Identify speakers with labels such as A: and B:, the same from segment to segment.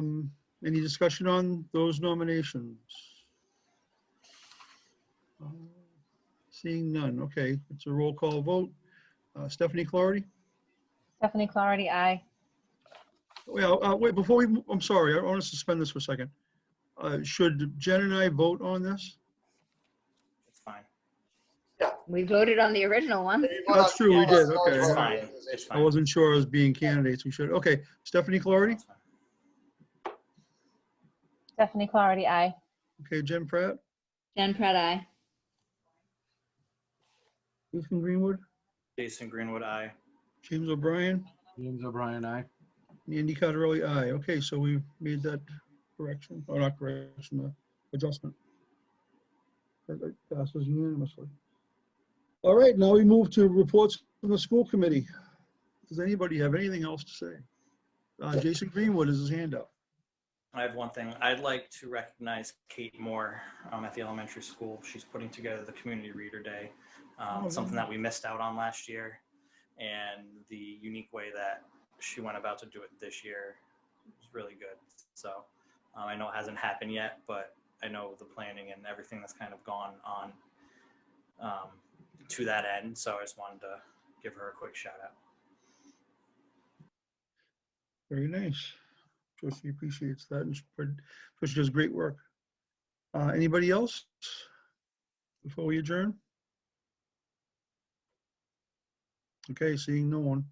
A: Um, Any discussion on those nominations? Uh, Seeing none, okay, it's a roll call vote. Uh, Stephanie Clarity?
B: Stephanie Clarity, aye.
A: Well, uh, wait, before we, mo- I'm sorry, I want to suspend this for a second. Uh, Should Jen and I vote on this?
C: It's fine.
B: We voted on the original one.
A: That's true, we did, okay.
C: It's fine. It's
A: I
C: fine.
A: wasn't sure as being candidates, we should, okay, Stephanie Clarity?
C: It's fine.
B: Stephanie Clarity, aye.
A: Okay, Jen Pratt,
B: Jen Pratt, aye.
A: Ethan Greenwood,
C: Jason Greenwood, aye.
A: James O'Brien,
D: James O'Brien, aye.
A: Andy Cotterelli, aye. Okay, so we made that correction, or not correction, uh, adjustment. That- that Passes unanimously. All right, now we move to reports from the school committee. Does anybody have anything else to say? Uh, Jason Greenwood is his hand up.
C: I have one thing. I'd like to recognize Kate Moore um, at the elementary school. She's putting together the Community Reader Day, um,
A: Oh,
C: something
A: nice.
C: that we missed out on last year, and the unique way that she went about to do it this year was really good. So um, I know it hasn't happened yet, but I know the planning and everything that's kind of gone on um, to that end. So I just wanted to give her a quick shout out.
A: Very nice. Sure she appreciates that and she put- sure she does great work. Uh, Anybody else before we adjourn? Okay, seeing no one.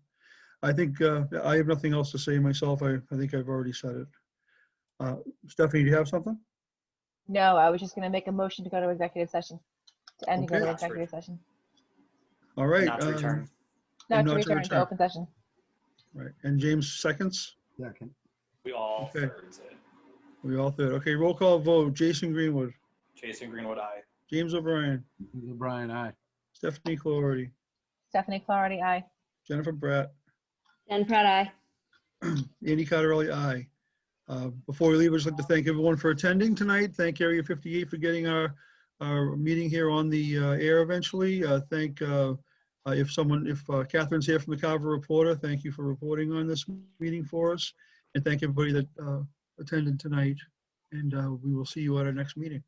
A: I think uh, I have nothing else to say myself. I, I think I've already said it. Uh, Stephanie, do you have something?
B: No, I was just going to make a motion to go to executive session, to end and go
A: Okay.
B: to executive session.
A: All right.
C: Not to
A: um,
C: return.
B: Not
A: And
B: to return to open session.
A: Right, and James seconds.
D: Second.
C: We all
A: Okay.
C: thirds it.
A: We all third. Okay, roll call vote. Jason Greenwood,
C: Jason Greenwood, aye.
A: James O'Brien,
D: James O'Brien, aye.
A: Stephanie Clarity,
B: Stephanie Clarity, aye.
A: Jennifer Bratt,
B: Jen Pratt, aye.
A: Andy Cotterelli, aye. Uh, Before we leave, I'd just like to thank everyone for attending tonight. Thank Area 58 for getting our, our meeting here on the uh, air eventually. Uh, Thank, uh, uh, if someone, if uh, Catherine's here from the Carver Reporter, thank you for reporting on this meeting for us. And thank everybody that uh, attended tonight. And uh, we will see you at our next meeting.